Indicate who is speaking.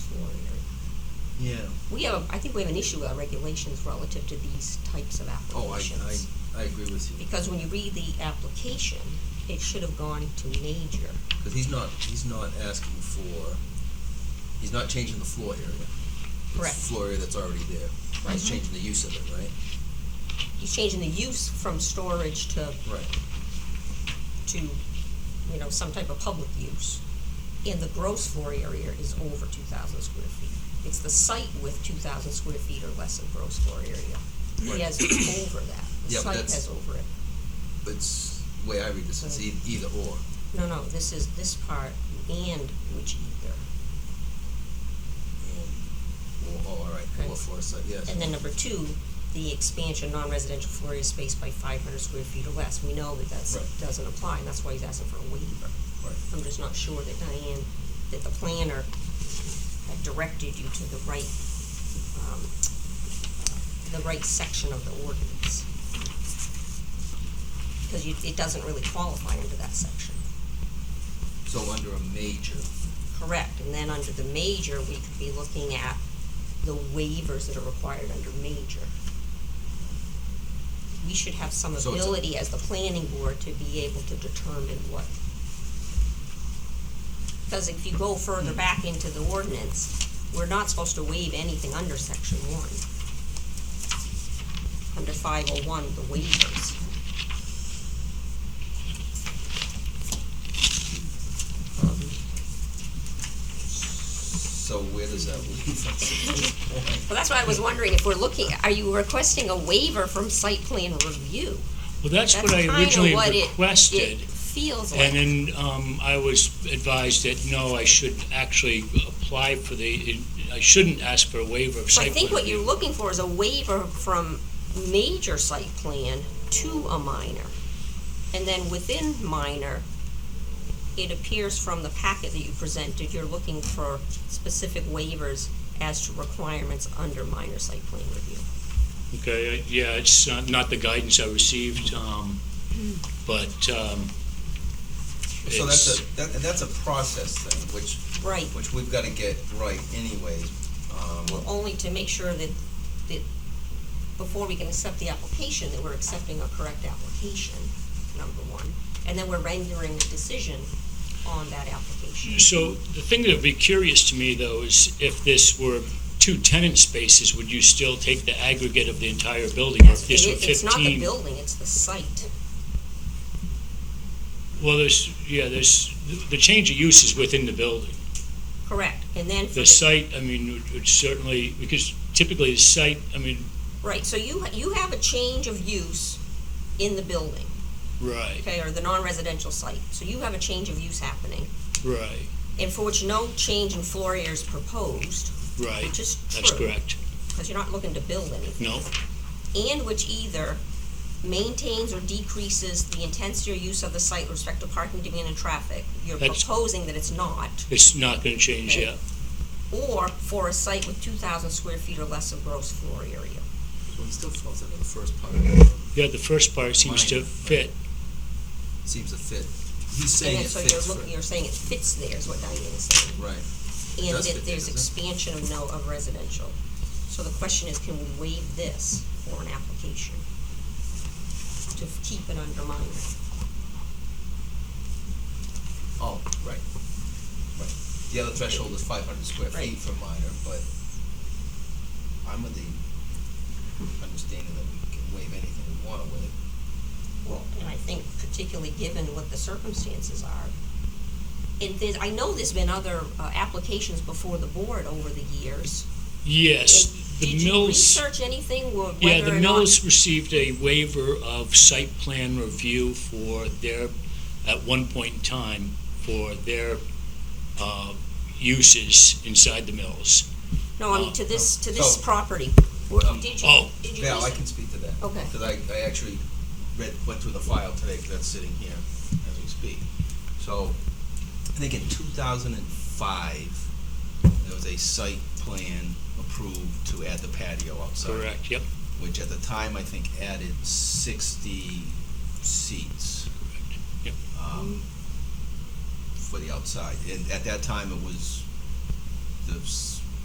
Speaker 1: we have, I think we have an issue with our regulations relative to these types of
Speaker 2: Oh, I,
Speaker 1: applications.
Speaker 2: I, I agree with you,
Speaker 1: Because when you read the application, it should have gone to major.
Speaker 2: because he's not, he's not asking for, he's not changing the floor area. It's
Speaker 1: Correct. Mm-hmm.
Speaker 2: the floor area that's already there. He's changing the use of it, right?
Speaker 1: He's changing the use from storage to,
Speaker 2: Right.
Speaker 1: to, you know, some type of public use. And the gross floor area is over two thousand square feet. It's the site with two thousand square feet or less of gross floor area.
Speaker 2: Right.
Speaker 1: He has over that. The
Speaker 2: Yeah, but
Speaker 1: site
Speaker 2: that's-
Speaker 1: has over it.
Speaker 2: It's, the way I read this, it's e- either or.
Speaker 1: No, no, this is this part and which either.
Speaker 2: And- Or, or, all right, or
Speaker 1: Okay.
Speaker 2: for a site, yes.
Speaker 1: And then number two, the expansion, non-residential floor area space by five hundred square feet or less, we know that that's,
Speaker 2: Right.
Speaker 1: doesn't apply, and that's why he's asking for a waiver.
Speaker 2: Right.
Speaker 1: I'm just not sure that Diane, that the planner had directed you to the right, um, the right section of the ordinance. Because you, it doesn't really qualify under that section.
Speaker 2: So under a major,
Speaker 1: Correct, and then under the major, we could be looking at the waivers that are required under major. We should have some
Speaker 2: So it's a-
Speaker 1: ability as the planning board to be able to determine what. Because if you go further back into the ordinance, we're not supposed to waive anything under section one. Under five oh one, the waivers.
Speaker 2: so where does that leave us?
Speaker 1: Well, that's why I was wondering if we're looking, are you requesting a waiver from site plan review?
Speaker 3: Well, that's
Speaker 1: That's
Speaker 3: what I
Speaker 1: kinda
Speaker 3: originally
Speaker 1: what it-
Speaker 3: requested,
Speaker 1: It feels like.
Speaker 3: and then um, I was advised that, no, I should actually apply for the, I shouldn't ask for a waiver of
Speaker 1: So I
Speaker 3: site
Speaker 1: think what
Speaker 3: plan
Speaker 1: you're
Speaker 3: review.
Speaker 1: looking for is a waiver from major site plan to a minor. And then within minor, it appears from the packet that you presented, you're looking for specific waivers as to requirements under minor site plan review.
Speaker 3: Okay, I- yeah, it's not- not the guidance I received, um, but um,
Speaker 2: So
Speaker 3: it's,
Speaker 2: that's a, that, that's a process thing, which,
Speaker 1: Right,
Speaker 2: which we've gotta get right anyways. Um,
Speaker 1: only to make sure that, that before we can accept the application, that we're accepting a correct application, number one. And then we're rendering a decision on that application.
Speaker 3: so the thing that would be curious to me, though, is if this were two tenant spaces, would you still take the aggregate of the entire building? Or if this were
Speaker 1: It- It's not the
Speaker 3: 15?
Speaker 1: building, it's the site.
Speaker 3: Well, there's, yeah, there's, the change of use is within the building.
Speaker 1: Correct. And then for
Speaker 3: The
Speaker 1: the,
Speaker 3: site, I mean, would- would certainly, because typically the site, I mean.
Speaker 1: right, so you, you have a change of use in the building,
Speaker 3: Right,
Speaker 1: okay, or the non-residential site. So you have a change of use happening,
Speaker 3: right,
Speaker 1: and for which no change in floor area is proposed,
Speaker 3: right.
Speaker 1: which is true.
Speaker 3: That's correct.
Speaker 1: Because you're not looking to build anything.
Speaker 3: No,
Speaker 1: And which either maintains or decreases the intensity or use of the site with respect to parking demand and traffic. You're
Speaker 3: That's-
Speaker 1: proposing that it's not.
Speaker 3: it's not going to change
Speaker 1: Okay.
Speaker 3: yet.
Speaker 1: Or for a site with two thousand square feet or less of gross floor area.
Speaker 2: Well, it still falls under the first part, it
Speaker 3: Yeah, the first part seems to
Speaker 2: Minor.
Speaker 3: fit.
Speaker 2: seems to fit. He's
Speaker 1: And
Speaker 2: saying
Speaker 1: then,
Speaker 2: it
Speaker 1: so
Speaker 2: fits
Speaker 1: you're
Speaker 2: for,
Speaker 1: looking, you're saying it fits there is what Diane is saying,
Speaker 2: right,
Speaker 1: and
Speaker 2: does fit
Speaker 1: that
Speaker 2: there,
Speaker 1: there's
Speaker 2: doesn't it?
Speaker 1: expansion of no, of residential. So the question is, can we waive this for an application? To f- keep it under minor?
Speaker 2: oh, right, right. The other threshold is five hundred square
Speaker 1: Right.
Speaker 2: feet for minor, but I'm of the understanding that we can waive anything we wanna waive.
Speaker 1: Well, and I think particularly given what the circumstances are. And there's, I know there's been other, uh, applications before the board over the years.
Speaker 3: Yes,
Speaker 1: And
Speaker 3: the Mills,
Speaker 1: Did you research anything, wh- whether or not?
Speaker 3: yeah, the Mills received a waiver of site plan review for their, at one point in time, for their uh, uses inside the Mills.
Speaker 1: No, I mean, to this, to this
Speaker 2: So-
Speaker 1: property,
Speaker 2: Um,
Speaker 1: did you,
Speaker 3: Oh.
Speaker 1: did you
Speaker 2: Yeah, I
Speaker 1: research?
Speaker 2: can speak to that.
Speaker 1: Okay.
Speaker 2: Because I, I actually read, went through the file today, because that's sitting here as we speak. So, I think in two thousand and five, there was a site plan approved to add the patio outside.
Speaker 3: Correct, yep.
Speaker 2: Which at the time, I think added sixty seats.
Speaker 3: Yep.
Speaker 2: Um, for the outside, and at that time, it was the s-